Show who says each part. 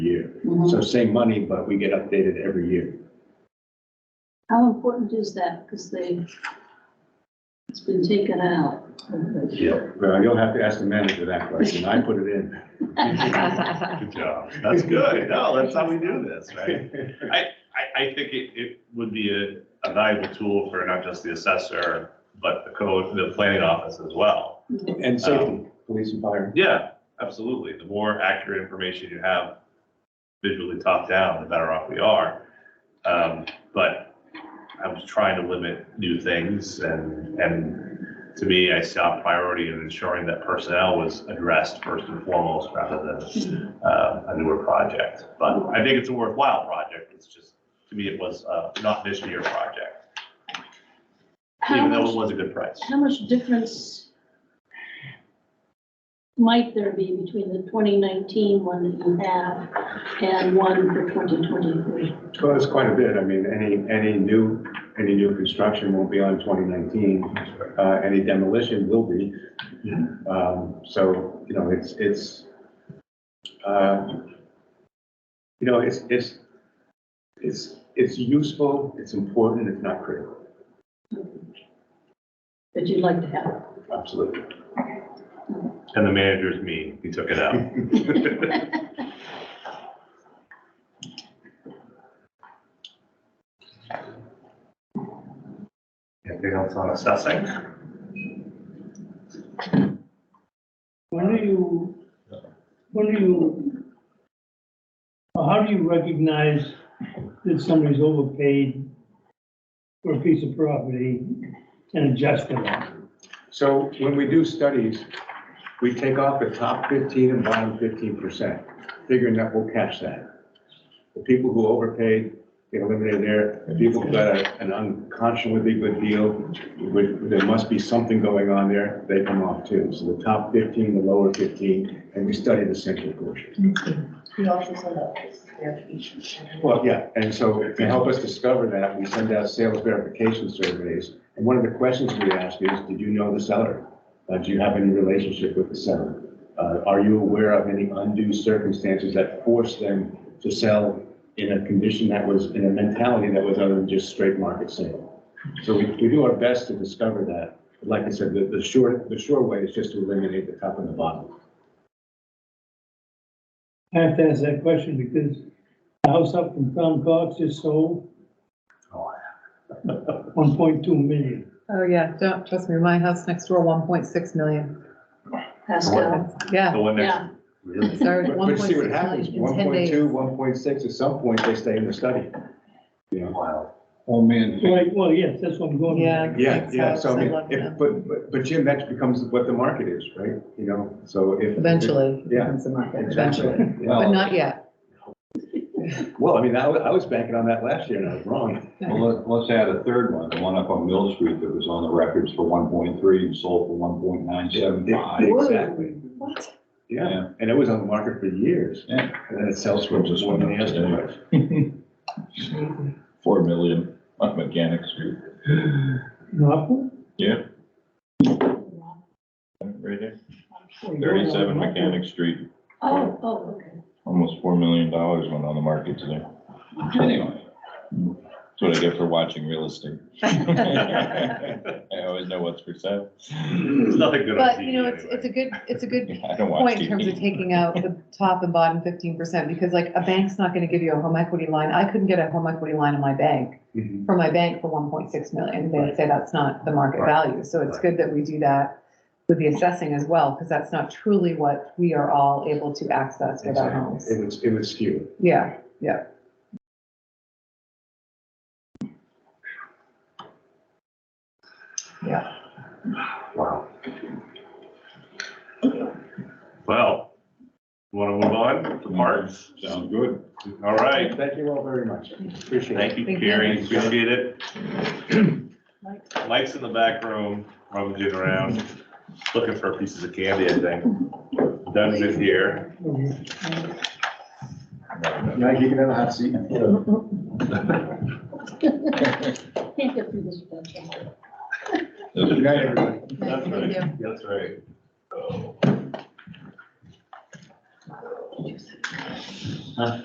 Speaker 1: Mhm.
Speaker 2: So same money, but we get updated every year.
Speaker 1: How important is that? Because they, it's been taken out.
Speaker 2: Yeah. Well, you'll have to ask the manager that question. I put it in.
Speaker 3: Good job. That's good. No, that's how we do this, right? I, I think it, it would be a, a valuable tool for not just the assessor, but the code, the planning office as well.
Speaker 2: And safety, police and fire.
Speaker 3: Yeah, absolutely. The more accurate information you have visually top down, the better off we are. Um, but I was trying to limit new things and, and to me, I saw priority in ensuring that personnel was addressed first and foremost rather than uh, a newer project, but I think it's a worthwhile project. It's just, to me, it was uh, not this year project,
Speaker 1: How
Speaker 3: even though it
Speaker 1: much,
Speaker 3: was a good price.
Speaker 1: how much difference might there be between the 2019 one that you have and one for 2023?
Speaker 2: Well, it's quite a bit. I mean, any, any new, any new construction won't be on 2019. Uh, Any demolition will be.
Speaker 3: Yeah.
Speaker 2: Um, So, you know, it's, it's, uh, you know, it's, it's, it's, it's useful, it's important, it's not critical.
Speaker 1: That you'd like to have?
Speaker 2: Absolutely.
Speaker 3: And the manager's me, he took it out. Anything else on assessing?
Speaker 4: When do you, when do you, or how do you recognize that somebody's overpaid for a piece of property and adjust it?
Speaker 2: So when we do studies, we take off the top 15 and bottom 15%, figuring that we'll catch that. The people who overpaid get eliminated there. The people who got a- an unconscionably good deal, would- there must be something going on there, they come off too. So the top 15, the lower 15, and we study the central portion.
Speaker 5: He also said that it's verification.
Speaker 2: Well, yeah, and so to help us discover that, we send out sales verification surveys. And one of the questions we ask is, did you know the seller? Uh, Do you have any relationship with the seller? Uh, Are you aware of any undue circumstances that forced them to sell in a condition that was, in a mentality that was other than just straight market sale? So we, we do our best to discover that. But Like I said, the, the short, the short way is just to eliminate the top and the bottom.
Speaker 4: I have to ask that question because the house up from Tom Cox just sold.
Speaker 3: Oh,
Speaker 4: One point two million.
Speaker 6: Oh, yeah, don't, trust me, my house next door, one point six million.
Speaker 1: Pascal?
Speaker 6: Yeah,
Speaker 3: The one next,
Speaker 1: Yeah,
Speaker 3: really?
Speaker 6: sorry,
Speaker 2: But
Speaker 6: one
Speaker 2: but
Speaker 6: point
Speaker 2: see
Speaker 6: six
Speaker 2: what happens,
Speaker 6: million in
Speaker 2: one
Speaker 6: ten
Speaker 2: point two,
Speaker 6: days.
Speaker 2: one point six, at some point, they stay in the study. You know?
Speaker 3: Wow.
Speaker 7: Oh, man.
Speaker 4: Right, well, yes, that's what I'm going with.
Speaker 6: Yeah.
Speaker 2: Yeah,
Speaker 6: Makes
Speaker 2: yeah, so I
Speaker 6: sense. I
Speaker 2: mean,
Speaker 6: love
Speaker 2: if,
Speaker 6: that.
Speaker 2: but, but, but Jim, that becomes what the market is, right? You know, so if.
Speaker 6: Eventually, it
Speaker 2: Yeah.
Speaker 6: becomes a market,
Speaker 2: Exactly.
Speaker 6: eventually,
Speaker 2: Yeah.
Speaker 6: but not yet.
Speaker 2: Well, I mean, I, wa- I was banking on that last year and I was wrong.
Speaker 7: Well, let- let's add a third one, the one up on Mill Street that was on the records for one point three and sold for one point nine seven five.
Speaker 2: Exactly,
Speaker 6: What?
Speaker 2: yeah, and it was on the market for years,
Speaker 7: Yeah,
Speaker 2: and then it sells for
Speaker 7: Just
Speaker 2: more than the
Speaker 7: went up
Speaker 2: asking
Speaker 7: today.
Speaker 2: price.
Speaker 7: four million on Mechanic Street,
Speaker 4: Norfolk?
Speaker 7: right there,
Speaker 4: Or you go to
Speaker 7: thirty-seven
Speaker 4: Norfolk?
Speaker 7: Mechanic Street,
Speaker 1: oh, oh, okay.
Speaker 7: almost four million dollars went on the market today. Anyway, that's what I get for watching real estate. I always know what's for sale.
Speaker 2: Mm-hmm.
Speaker 3: There's nothing good on TV
Speaker 6: But, you know, it's,
Speaker 3: anyway.
Speaker 6: it's a good, it's a good
Speaker 7: I don't watch
Speaker 6: point in terms of
Speaker 7: TV.
Speaker 6: taking out the top and bottom fifteen percent, because like, a bank's not gonna give you a home equity line. I couldn't get a home equity line in my bank,
Speaker 2: Mhm.
Speaker 6: from my bank for one point six million. They'd say that's not the market
Speaker 2: Right.
Speaker 6: value, so it's
Speaker 2: Right.
Speaker 6: good that we do that with the assessing as well, because that's not truly what we are all able to access with our homes.
Speaker 2: Exactly. uh, It was, it was skewed.
Speaker 6: Yeah,
Speaker 3: Wow. Well, want to move on to parks?
Speaker 7: Sounds good.
Speaker 3: All right.
Speaker 2: Thank you all very much, appreciate it.
Speaker 3: Thank you,
Speaker 6: Thank
Speaker 3: Carrie.
Speaker 6: you.
Speaker 3: Appreciate it. Mike's in the back room, rummaging around, looking for pieces of candy, I think. Doug's in here.
Speaker 2: Now you can have a hot seat.
Speaker 1: Can't get through this without you.
Speaker 2: Good night, everybody.
Speaker 3: That's
Speaker 6: Thank
Speaker 3: right.
Speaker 6: you.
Speaker 3: That's right. Oh.